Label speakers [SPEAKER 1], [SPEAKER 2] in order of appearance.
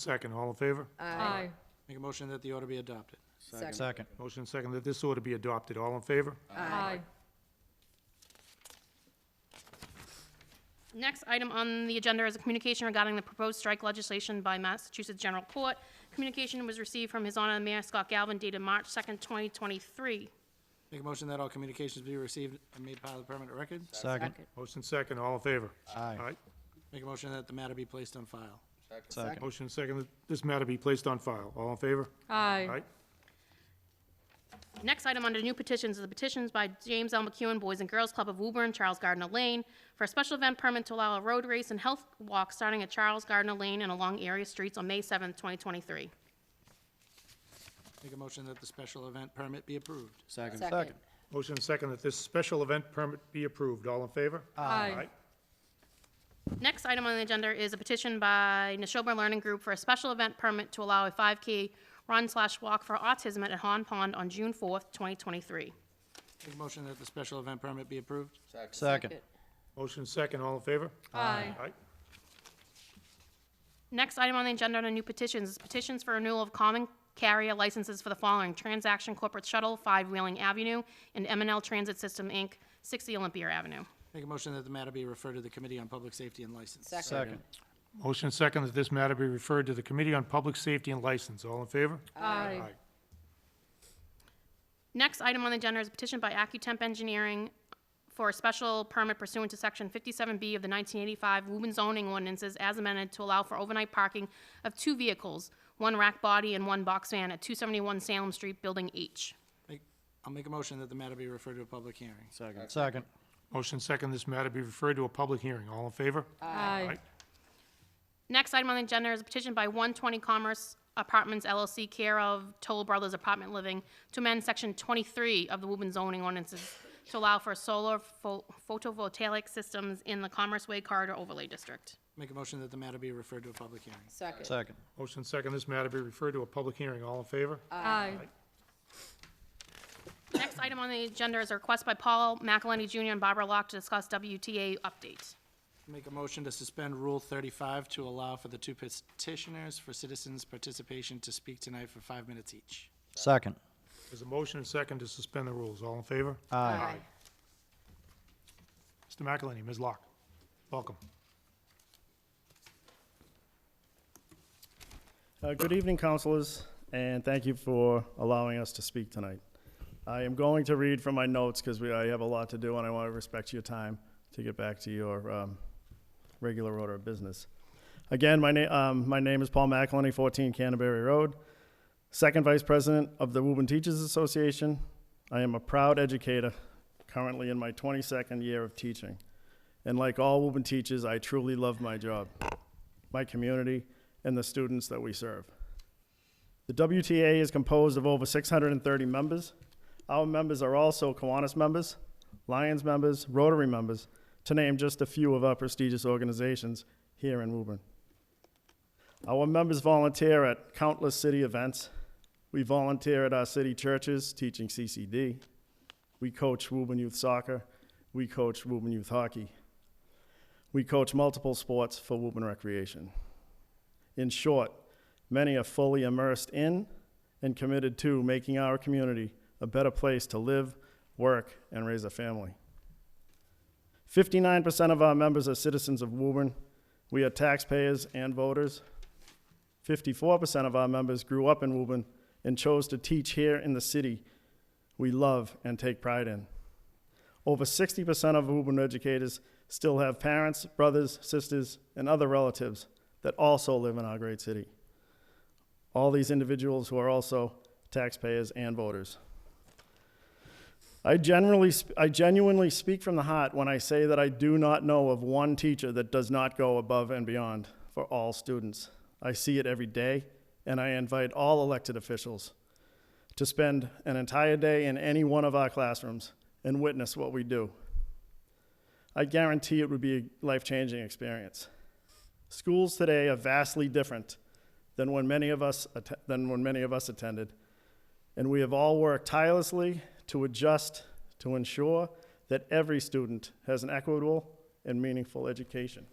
[SPEAKER 1] Second, all in favor?
[SPEAKER 2] Aye.
[SPEAKER 3] Make a motion that the order be adopted.
[SPEAKER 2] Second.
[SPEAKER 4] Second.
[SPEAKER 1] Motion second that this order be adopted, all in favor?
[SPEAKER 2] Aye.
[SPEAKER 5] Next item on the agenda is a communication regarding the proposed strike legislation by Massachusetts General Court. Communication was received from His Honor Mayor Scott Galvin dated March 2nd, 2023.
[SPEAKER 3] Make a motion that all communications be received and made part of the permanent record.
[SPEAKER 4] Second.
[SPEAKER 1] Motion second, all in favor?
[SPEAKER 4] Aye.
[SPEAKER 3] Make a motion that the matter be placed on file.
[SPEAKER 4] Second.
[SPEAKER 1] Motion second that this matter be placed on file, all in favor?
[SPEAKER 2] Aye.
[SPEAKER 5] Next item under new petitions is the petitions by James L. McEwen Boys and Girls Club of Woburn, Charles Gardner Lane, for a special event permit to allow a road race and health walk starting at Charles Gardner Lane and along area streets on May 7th, 2023.
[SPEAKER 3] Make a motion that the special event permit be approved.
[SPEAKER 4] Second.
[SPEAKER 2] Second.
[SPEAKER 1] Motion second that this special event permit be approved, all in favor?
[SPEAKER 2] Aye.
[SPEAKER 5] Next item on the agenda is a petition by Neshoba Learning Group for a special event permit to allow a 5K run slash walk for autism at Han Pond on June 4th, 2023.
[SPEAKER 3] Make a motion that the special event permit be approved.
[SPEAKER 4] Second.
[SPEAKER 1] Motion second, all in favor?
[SPEAKER 2] Aye.
[SPEAKER 5] Next item on the agenda under new petitions is petitions for renewal of common carrier licenses for the following: Transaction Corporate Shuttle, 5 Wheeling Avenue, and m and L Transit System, Inc., 60 Olympia Avenue.
[SPEAKER 3] Make a motion that the matter be referred to the Committee on Public Safety and License.
[SPEAKER 4] Second.
[SPEAKER 1] Motion second that this matter be referred to the Committee on Public Safety and License, all in favor?
[SPEAKER 2] Aye.
[SPEAKER 5] Next item on the agenda is a petition by Accutemp Engineering for a special permit pursuant to Section 57B of the 1985 Woburn zoning ordinances as amended to allow for overnight parking of two vehicles, one rack body and one box van at 271 Salem Street, Building H.
[SPEAKER 3] Make- I'll make a motion that the matter be referred to a public hearing.
[SPEAKER 4] Second. Second.
[SPEAKER 1] Motion second this matter be referred to a public hearing, all in favor?
[SPEAKER 2] Aye.
[SPEAKER 5] Next item on the agenda is a petition by 120 Commerce Apartments LLC, care of Toll Brothers Apartment Living, to amend Section 23 of the Woburn zoning ordinances to allow for solar pho- photovoltaic systems in the Commerce Way Corridor Overlay District.
[SPEAKER 3] Make a motion that the matter be referred to a public hearing.
[SPEAKER 2] Second.
[SPEAKER 4] Second.
[SPEAKER 1] Motion second this matter be referred to a public hearing, all in favor?
[SPEAKER 2] Aye.
[SPEAKER 5] Next item on the agenda is a request by Paul McElhenney Jr. and Barbara Locke to discuss WTA update.
[SPEAKER 3] Make a motion to suspend Rule 35 to allow for the two petitioners for citizens' participation to speak tonight for five minutes each.
[SPEAKER 4] Second.
[SPEAKER 1] There's a motion and second to suspend the rules, all in favor?
[SPEAKER 2] Aye.
[SPEAKER 1] Mr. McElhenney, Ms. Locke, welcome.
[SPEAKER 6] Uh, Good evening, councilors, and thank you for allowing us to speak tonight. I am going to read from my notes because I have a lot to do, and I want to respect your time to get back to your um, regular order of business. Again, my name, my name is Paul McElhenney, 14 Canterbury Road, second vice president of the Woburn Teachers Association. I am a proud educator, currently in my 22nd year of teaching. And like all Woburn teachers, I truly love my job my community, and the students that we serve. The WTA is composed of over 630 members. Our members are also Kiwanis members, Lions members, Rotary members, to name just a few of our prestigious organizations here in Woburn. Our members volunteer at countless city events. We volunteer at our city churches teaching CCD. We coach Woburn Youth Soccer. We coach Woburn Youth Hockey. We coach multiple sports for Woburn Recreation. In short, many are fully immersed in and committed to making our community a better place to live, work, and raise a family. 59% of our members are citizens of Woburn. We are taxpayers and voters. 54% of our members grew up in Woburn and chose to teach here in the city we love and take pride in. Over 60% of Woburn educators still have parents, brothers, sisters, and other relatives that also live in our great city. All these individuals who are also taxpayers and voters. I generally, sp- I genuinely speak from the heart when I say that I do not know of one teacher that does not go above and beyond for all students. I see it every day, and I invite all elected officials to spend an entire day in any one of our classrooms and witness what we do. I guarantee it would be a life changing experience. Schools today are vastly different than when many of us att- than when many of us attended, and we have all worked tirelessly to adjust to ensure that every student has an equitable and meaningful education.